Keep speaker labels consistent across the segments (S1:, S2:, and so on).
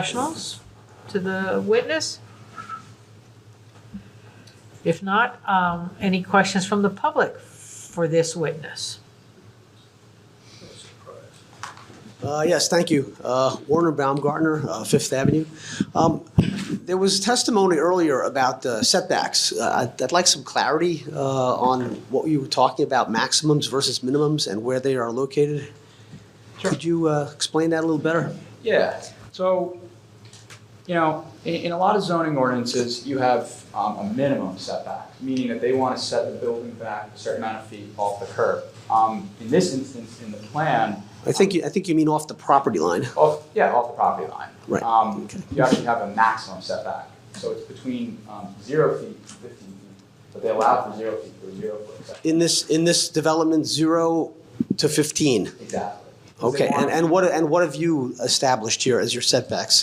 S1: professionals to the witness? If not, um, any questions from the public for this witness?
S2: Uh, Yes, thank you. Uh, Warner Baumgartner, uh, Fifth Avenue. Um, There was testimony earlier about uh, setbacks. Uh, I'd I'd like some clarity uh, on what you were talking about, maximums versus minimums, and where they are located. Could you uh, explain that a little better?
S3: Yeah, so, you know, in, in a lot of zoning ordinances, you have um, a minimum setback, meaning that they want to set the building back a certain amount of feet off the curb. Um, in this instance, in the plan,
S2: I think, you- I think you mean off the property line.
S3: off, yeah, off the property line.
S2: Right,
S3: Um,
S2: okay.
S3: you actually have a maximum setback, so it's between, um, zero feet and fifteen feet, but they allow for zero feet for zero foot setback.
S2: In this, in this development, 0 to
S3: Exactly.
S2: 15.
S3: 'Cause they
S2: Okay, and
S3: want-
S2: and what, and what have you established here as your setbacks?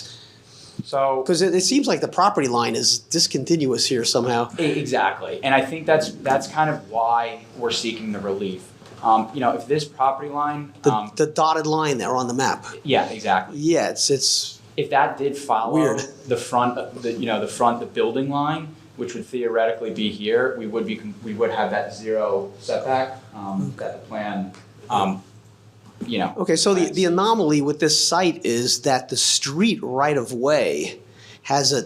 S3: So.
S2: Because it it seems like the property line is discontinuous here somehow.
S3: E- Exactly, and I think that's, that's kind of why we're seeking the relief. Um, you know, if this property line,
S2: The,
S3: um,
S2: the dotted line there on the map.
S3: yeah, exactly.
S2: Yeah, it's, it's,
S3: If that did follow
S2: Weird.
S3: the front, of the, you know, the front, the building line, which would theoretically be here, we would be, com- we would have that zero setback,
S2: Mm.
S3: um, that the plan, um, you know.
S2: okay, so the, the anomaly with this site is that the street right-of-way has a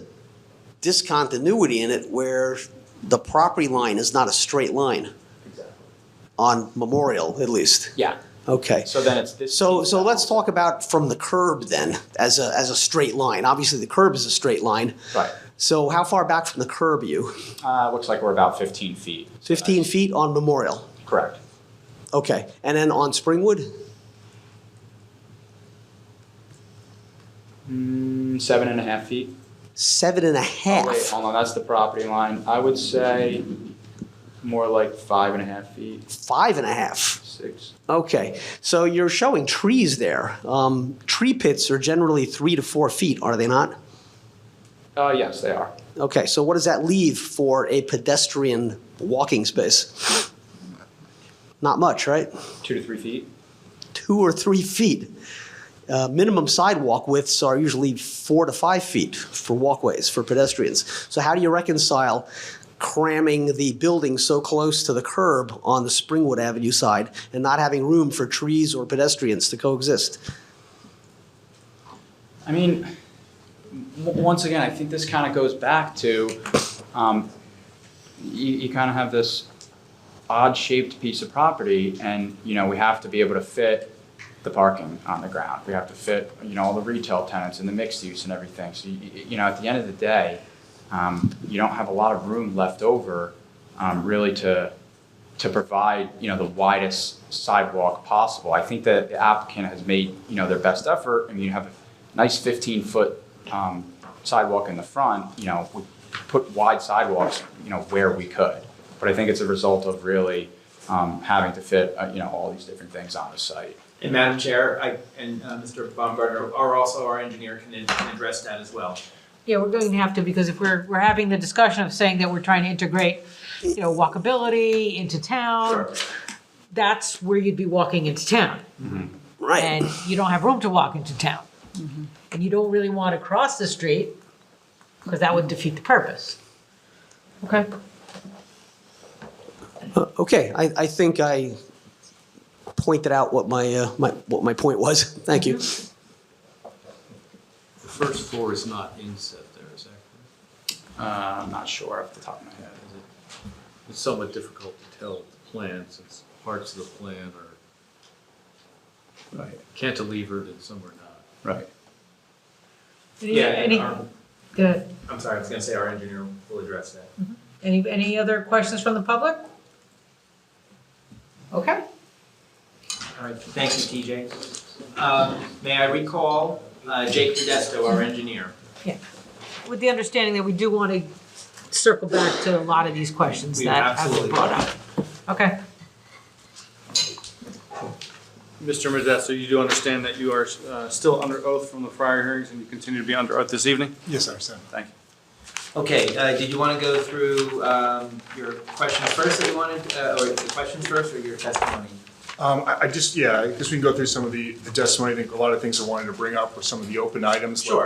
S2: discontinuity in it where the property line is not a straight line,
S3: Exactly.
S2: on Memorial at least.
S3: Yeah,
S2: Okay.
S3: so then it's this.
S2: So, so let's talk about from the curb then, as a, as a straight line. Obviously, the curb is a straight line.
S3: Right,
S2: So how far back from the curb are you?
S3: uh, looks like we're about fifteen feet.
S2: 15 feet on Memorial?
S3: Correct.
S2: Okay, and then on Springwood?
S3: Mm, seven and a half feet.
S2: Seven and a
S3: Oh,
S2: half.
S3: Wait, hold on, that's the property line. I would say more like five and a half feet,
S2: Five and a half.
S3: six.
S2: Okay, so you're showing trees there. Um, tree pits are generally three to four feet, are they not?
S3: Oh, yes, they are.
S2: Okay, so what does that leave for a pedestrian walking space? Not much, right?
S3: Two to three feet?
S2: Two or three feet. Uh, minimum sidewalk widths are usually four to five feet for walkways for pedestrians. So how do you reconcile cramming the building so close to the curb on the Springwood Avenue side and not having room for trees or pedestrians to coexist?
S3: I mean, w- once again, I think this kind of goes back to, um, you, you kind of have this odd-shaped piece of property, and, you know, we have to be able to fit the parking on the ground. We have to fit, you know, all the retail tenants and the mixed use and everything. So, you, you know, at the end of the day, um, you don't have a lot of room left over, um, really to, to provide, you know, the widest sidewalk possible. I think that the applicant has made, you know, their best effort. I mean, you have a nice fifteen-foot, um, sidewalk in the front, you know, we put wide sidewalks, you know, where we could. But I think it's a result of really, um, having to fit, uh, you know, all these different things on the site.
S4: And Madam Chair, I, and uh, Mr. Baumgartner, are also, our engineer can can address that as well.
S1: Yeah, we're going to have to, because if we're, we're having the discussion of saying that we're trying to integrate, you know, walkability into town, that's where you'd be walking into town.
S2: Right.
S1: And you don't have room to walk into town. And you don't really want to cross the street, because that would defeat the purpose. Okay?
S2: Okay, I, I think I pointed out what my, uh, my, what my point was. Thank you.
S5: The first floor is not inset there, is that correct?
S3: Uh, I'm not sure off the top of my head.
S5: Is it- It's somewhat difficult to tell the plan since parts of the plan are
S3: Right,
S5: cantilevered and some are not.
S3: right.
S1: Any-
S4: Yeah, um, and
S1: Any,
S4: our-
S1: good.
S4: I'm sorry, I was gonna say our engineer will address that.
S1: Any, any other questions from the public? Okay.
S4: All right, thank you, TJ. Uh, May I recall uh, Jake Modesto, our engineer?
S1: With the understanding that we do want to circle back to a lot of these questions
S4: We
S1: that have been
S4: absolutely
S1: brought
S4: will.
S1: up. Okay.
S6: Mr. Modesto, you do understand that you are uh, still under oath from the prior hearings and you continue to be under oath this evening?
S7: Yes, sir, sir.
S6: Thank you.
S4: Okay, uh, did you want to go through um, your questions first that you wanted, uh, or the questions first, or your testimony?
S7: Um, I, I just, yeah, I guess we can go through some of the, the testimony, I think a lot of things I wanted to bring up were some of the open items. like
S4: Sure.